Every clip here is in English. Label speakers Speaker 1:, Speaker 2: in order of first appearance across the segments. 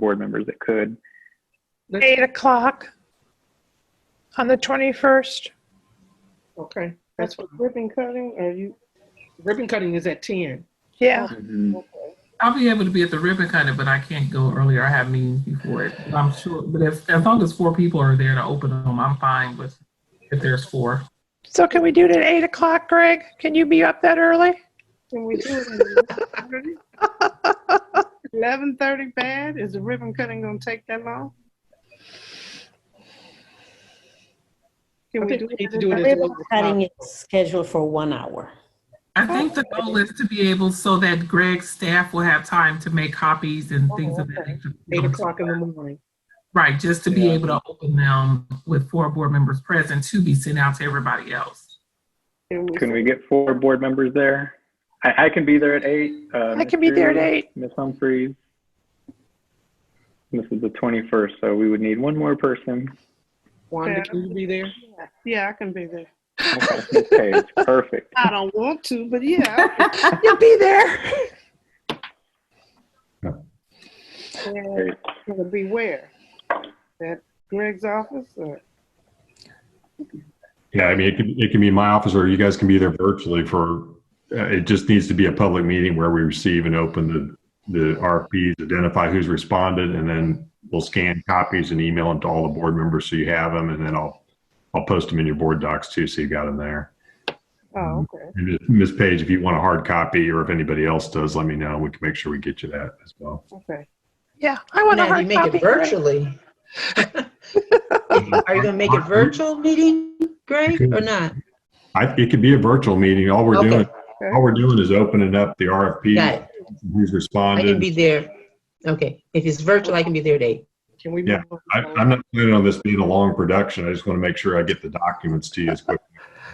Speaker 1: board members that could.
Speaker 2: Eight o'clock on the 21st.
Speaker 3: Okay, that's for ribbon cutting, or you, ribbon cutting is at ten.
Speaker 2: Yeah,
Speaker 4: I'll be able to be at the ribbon cutting, but I can't go earlier. I have meetings before it. But I'm sure, but if, as long as four people are there to open them, I'm fine with, if there's four.
Speaker 2: so can we do it at eight o'clock, Greg? Can you be up that early?
Speaker 3: Can we do it? Eleven thirty bad, is the ribbon cutting gonna take that long? Can
Speaker 5: I
Speaker 3: we
Speaker 5: think
Speaker 3: do
Speaker 5: we need
Speaker 3: it?
Speaker 5: to do it
Speaker 3: at
Speaker 5: as
Speaker 3: eleven?
Speaker 5: well.
Speaker 6: Ribbon cutting is scheduled for one hour.
Speaker 4: I think the goal is to be able, so that Greg's staff will have time to make copies
Speaker 5: Oh,
Speaker 4: and things of that.
Speaker 3: okay.
Speaker 4: nature.
Speaker 3: Eight o'clock in the morning.
Speaker 4: Right, just to be
Speaker 5: Yeah.
Speaker 4: able to open them with four board members present to be sent out to everybody else.
Speaker 1: Can we get four board members there? I, I can be there at eight. uh,
Speaker 2: I can be there at
Speaker 1: Ms. Drew,
Speaker 2: eight.
Speaker 1: Ms. Humphries. This is the 21st, so we would need one more person.
Speaker 5: Wanda,
Speaker 3: Yeah.
Speaker 5: can you be there?
Speaker 3: Yeah, I can be there.
Speaker 1: Okay, Ms. Page, perfect.
Speaker 3: I don't want to, but yeah.
Speaker 2: You'll be there.
Speaker 3: And It'll be where? At Greg's office or?
Speaker 7: Yeah, I mean, it can, it can be in my office or you guys can be there virtually for, uh, it just needs to be a public meeting where we receive and open the, the RFPs, identify who's responded, and then we'll scan copies and email them to all the board members so you have them, and then I'll, I'll post them in your board docs too, so you got them there.
Speaker 3: Oh, okay.
Speaker 7: And if- Ms. Page, if you want a hard copy or if anybody else does, let me know. We can make sure we get you that as well.
Speaker 3: Okay.
Speaker 2: Yeah, I want a
Speaker 5: Now, you
Speaker 2: hard
Speaker 5: make
Speaker 2: copy.
Speaker 5: it
Speaker 2: Greg.
Speaker 5: virtually. Are you gonna make it virtual meeting, Greg, or not?
Speaker 7: I, it could be a virtual meeting. All we're
Speaker 5: Okay.
Speaker 7: doing, all we're doing is opening up the
Speaker 5: Got
Speaker 7: RFP,
Speaker 5: it.
Speaker 7: who's
Speaker 5: I can
Speaker 7: responded.
Speaker 5: be there. Okay, if it's virtual, I can be there at eight.
Speaker 3: Can we?
Speaker 7: Yeah,
Speaker 3: move
Speaker 7: I,
Speaker 3: on?
Speaker 7: I'm not planning on this being a long production. I just want to make sure I get the documents to you as quick.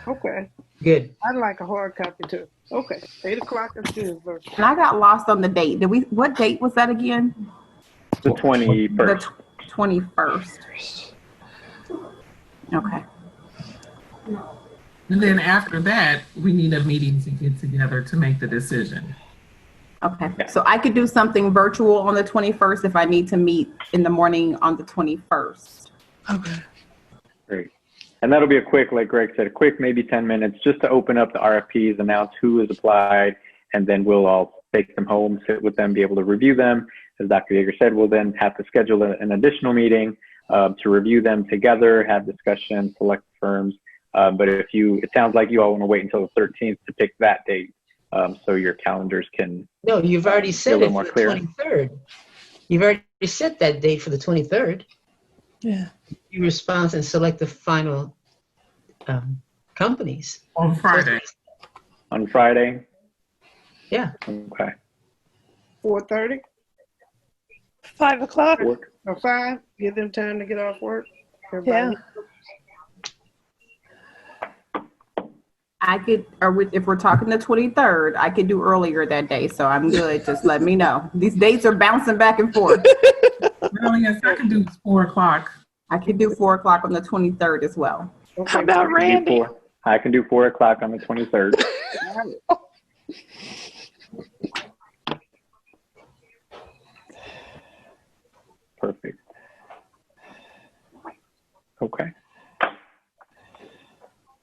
Speaker 3: Okay.
Speaker 5: Good.
Speaker 3: I'd like a hard copy too. Okay, eight o'clock is good. but-
Speaker 8: And I got lost on the date. Did we, what date was that again?
Speaker 1: The
Speaker 8: The
Speaker 1: 21st.
Speaker 8: tw- 21st. Okay.
Speaker 4: And then after that, we need a meeting to get together to make the decision.
Speaker 8: Okay. So I could do something virtual on the 21st if I need to meet in the morning on the 21st.
Speaker 1: Great. And that'll be a quick, like Greg said, a quick maybe 10 minutes just to open up the RFPs, announce who has applied, and then we'll all take them home, sit with them, be able to review them. As Dr. Yeager said, we'll then have to schedule a- an additional meeting um, to review them together, have discussion, select firms. Uh, but if you, it sounds like you all want to wait until the 13th to pick that date um, so your calendars can.
Speaker 5: No, you've already
Speaker 1: Be a
Speaker 5: set
Speaker 1: little
Speaker 5: it
Speaker 1: more
Speaker 5: for the
Speaker 1: clear.
Speaker 5: twenty-third. You've already set that date for the twenty-third.
Speaker 2: Yeah.
Speaker 5: You respond and select the final, um, companies.
Speaker 4: On Friday,
Speaker 1: On Friday?
Speaker 5: Yeah.
Speaker 1: Okay.
Speaker 3: Four thirty
Speaker 2: Five o'clock?
Speaker 1: Work.
Speaker 3: or five, give them time to get off work. Everybody-
Speaker 8: I could, or we- if we're talking the 23rd, I could do earlier that day. So I'm good. Just let me know. These dates are bouncing back and forth.
Speaker 4: the only thing I can do is four o'clock.
Speaker 8: I could do four o'clock on the 23rd as well.
Speaker 2: How
Speaker 3: Okay,
Speaker 2: about
Speaker 1: I can do
Speaker 2: Randy?
Speaker 1: four- I can do four o'clock on the 23rd.
Speaker 3: got it.
Speaker 1: Perfect. Okay.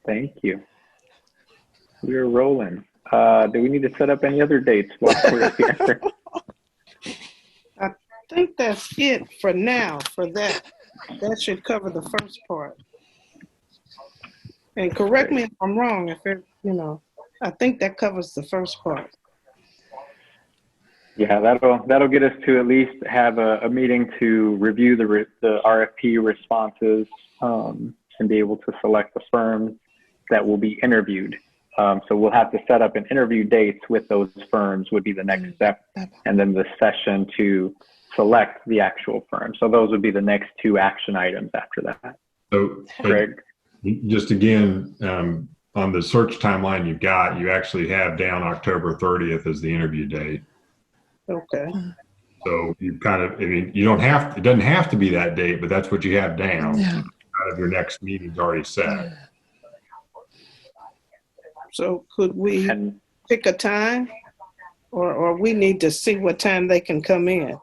Speaker 1: Thank you. We are rolling. Uh, do we need to set up any other dates while we're here?
Speaker 3: I think that's it for now, for that. That should cover the first part. And correct me if I'm wrong, if it, you know, I think that covers the first part.
Speaker 1: Yeah, that'll, that'll get us to at least have a, a meeting to review the, re- the RFP responses, um, and be able to select the firms that will be interviewed. Um, so we'll have to set up an interview dates with those firms would be the next step. And then the session to select the actual firm. So those would be the next two action items after that.
Speaker 7: So, but
Speaker 1: Greg?
Speaker 7: just again, um, on the search timeline you've got, you actually have down October 30th as the interview date.
Speaker 3: Okay,
Speaker 7: So you kind of, I mean, you don't have, it doesn't have to be that date, but that's what you have down. Kind of your next meeting's already set.
Speaker 3: so could we
Speaker 1: And
Speaker 3: pick a time? Or, or we need to see what time they can come in?